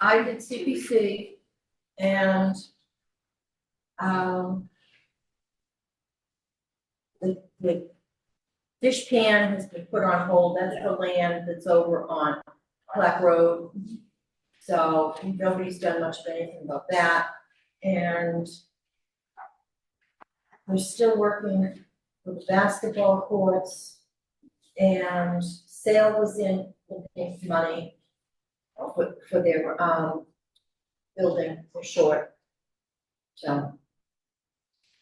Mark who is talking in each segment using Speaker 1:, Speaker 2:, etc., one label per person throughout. Speaker 1: I did CPC and um the the dish pan has been put on hold, that's the land that's over on Black Road. So nobody's done much of anything about that and we're still working with basketball courts and sale was in, in money for, for their, um, building for short. So.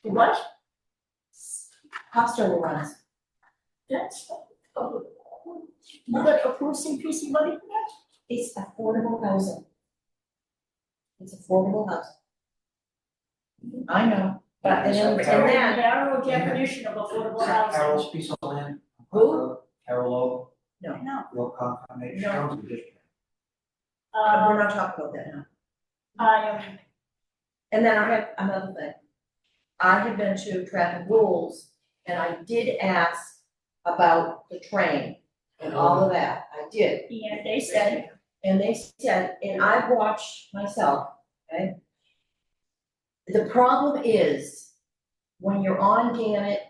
Speaker 1: What? Cost overruns.
Speaker 2: That's, oh, you got approved CPC money for that?
Speaker 1: It's affordable housing. It's affordable housing. I know, but and then, and then,
Speaker 2: Narrow definition of affordable housing.
Speaker 3: Carol's piece of land.
Speaker 1: Who?
Speaker 3: Carol O.
Speaker 2: No,
Speaker 3: Wilcox Foundation.
Speaker 1: No.
Speaker 3: Carol's a district.
Speaker 1: uh, we're
Speaker 2: um,
Speaker 1: not talking about that now.
Speaker 2: I am,
Speaker 1: And then I have another thing. I have been to traffic rules and I did ask about the train and all of that, I did.
Speaker 2: and they said,
Speaker 1: And they said, and I've watched myself, okay? The problem is, when you're on Gannett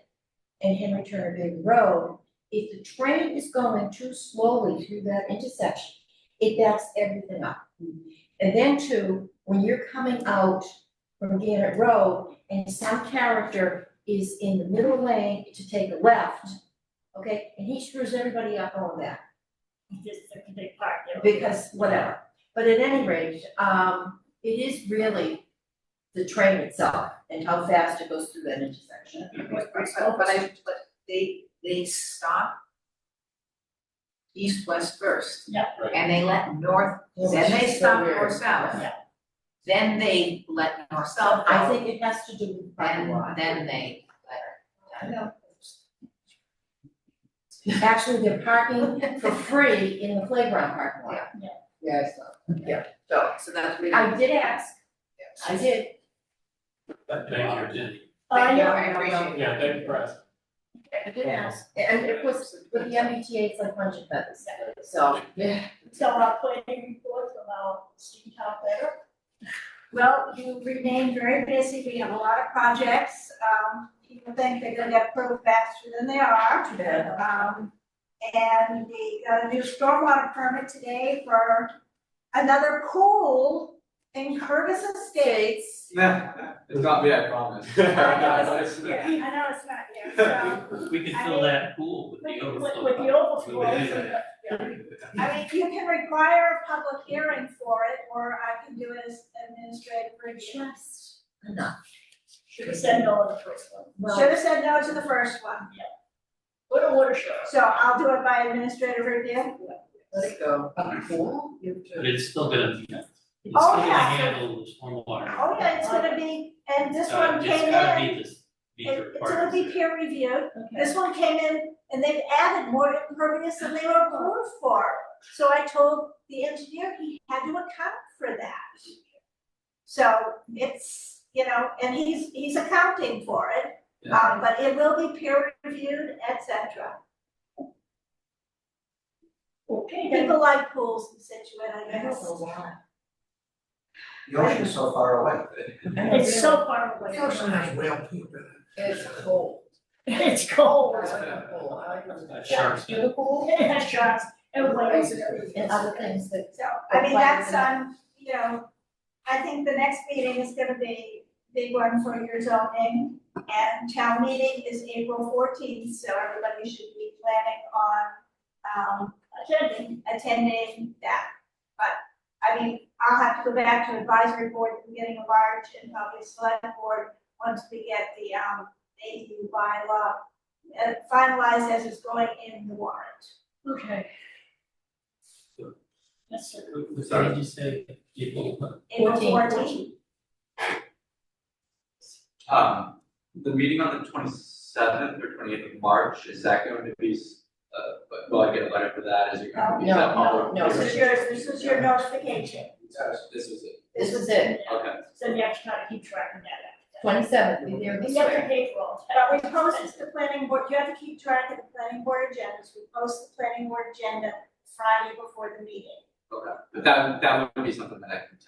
Speaker 1: and Henry Turner Big Road, if the train is going too slowly through that intersection, it backs everything up. And then too, when you're coming out from Gannett Road and some character is in the middle lane to take a left, okay, and he screws everybody up on that
Speaker 2: just a big part there.
Speaker 1: because whatever. But at any rate, um, it is really the train itself and how fast it goes through that intersection.
Speaker 4: But but I, but they, they stop east, west first.
Speaker 2: Yeah.
Speaker 5: Right.
Speaker 4: And they let north, then they stop north, south.
Speaker 2: Yeah.
Speaker 4: Then they let north, south
Speaker 1: I
Speaker 4: go,
Speaker 1: think it has to do with parking
Speaker 4: and
Speaker 1: lot.
Speaker 4: then they let.
Speaker 1: Actually, they're parking for free in the playground parking lot.
Speaker 4: Yes.
Speaker 1: Yeah.
Speaker 4: So, so that's really.
Speaker 1: I did ask, I did.
Speaker 5: Thank you, Jenny.
Speaker 2: I
Speaker 4: Thank you,
Speaker 2: am,
Speaker 4: I appreciate it.
Speaker 5: Yeah, thank you, Russ.
Speaker 1: I did ask. And of course, with the MBTA, it's like bunch of feathers, so. Yeah.
Speaker 2: so our planning report from our Steve Town better.
Speaker 6: Well, you remain very busy, we have a lot of projects, um, people think they're gonna get approved faster than they are.
Speaker 1: Too bad.
Speaker 6: Um, and we got a new stormwater permit today for another pool in Curtis Estates.
Speaker 7: It's not me, I promise.
Speaker 6: Yeah, I know it's not yet, so,
Speaker 5: We could
Speaker 6: I mean-
Speaker 5: fill that pool with the
Speaker 2: With,
Speaker 5: overflow.
Speaker 2: with the overflow,
Speaker 5: Yeah.
Speaker 2: so that- yeah.
Speaker 6: I mean, you can require a public hearing for it, or I can do it as administrative review.
Speaker 1: Just enough.
Speaker 2: should have said no on the first one.
Speaker 6: Should
Speaker 1: Well,
Speaker 6: have said no to the first one,
Speaker 2: What a watershed.
Speaker 6: so I'll do it by administrative review.
Speaker 1: let it go. A pool?
Speaker 5: But it's still gonna, be- it's still
Speaker 6: Oh,
Speaker 5: gonna
Speaker 6: yeah, so-
Speaker 5: handle the stormwater.
Speaker 6: Oh, yeah, it's gonna be, and this
Speaker 5: Uh,
Speaker 6: one came
Speaker 5: It's gotta
Speaker 6: in,
Speaker 5: be this, be
Speaker 6: it-
Speaker 5: your
Speaker 6: it's gonna be peer reviewed,
Speaker 2: Okay.
Speaker 6: this one came in, and they've added more impervious than they were approved for. So I told the engineer he had to account for that. So it's, you know, and he's, he's accounting for it, um, but it will be peer reviewed, et cetera.
Speaker 2: Okay, then,
Speaker 6: People like pools in Situate, I
Speaker 1: I don't
Speaker 6: guess.
Speaker 1: know why.
Speaker 3: The ocean's so far away.
Speaker 2: it's so far away.
Speaker 3: whale poop
Speaker 1: It's cold.
Speaker 2: It's cold.
Speaker 1: I like the pool. I like the-
Speaker 5: Uh, Sharks.
Speaker 1: Yeah, the pool.
Speaker 2: It has sharks, everybody else.
Speaker 1: And other things that
Speaker 6: So, I mean, that's, um, you know, I think the next meeting is gonna be big one for your zoning. And town meeting is April fourteenth, so everybody should be planning on, um,
Speaker 2: Attending.
Speaker 6: attending that. But, I mean, I'll have to go back to advisory board at the beginning of March and probably select board once we get the, um, AU bylaw uh, finalized as it's going in the warrant.
Speaker 2: Okay. Yes, sir.
Speaker 5: Was that what you say, people, uh,
Speaker 6: April
Speaker 1: 14th.
Speaker 6: fourteenth.
Speaker 7: Um, the meeting on the twenty-seventh or twenty-eighth of March, is that going to be, s- uh, but- will I get a letter for that, is it going to be? is that
Speaker 1: No, no,
Speaker 7: public
Speaker 1: no.
Speaker 7: hearing?
Speaker 6: This is yours, this is your notification.
Speaker 7: This is it,
Speaker 1: This is it,
Speaker 7: okay.
Speaker 2: So you have to kind of keep track of that.
Speaker 1: twenty seventh, we there this
Speaker 2: You have to
Speaker 1: year.
Speaker 2: pay for all
Speaker 6: But
Speaker 2: that.
Speaker 6: we post the planning board, you have to keep track of the planning board agendas, we post the planning board agenda Friday before the meeting.
Speaker 7: Okay, but that, that would be something that I can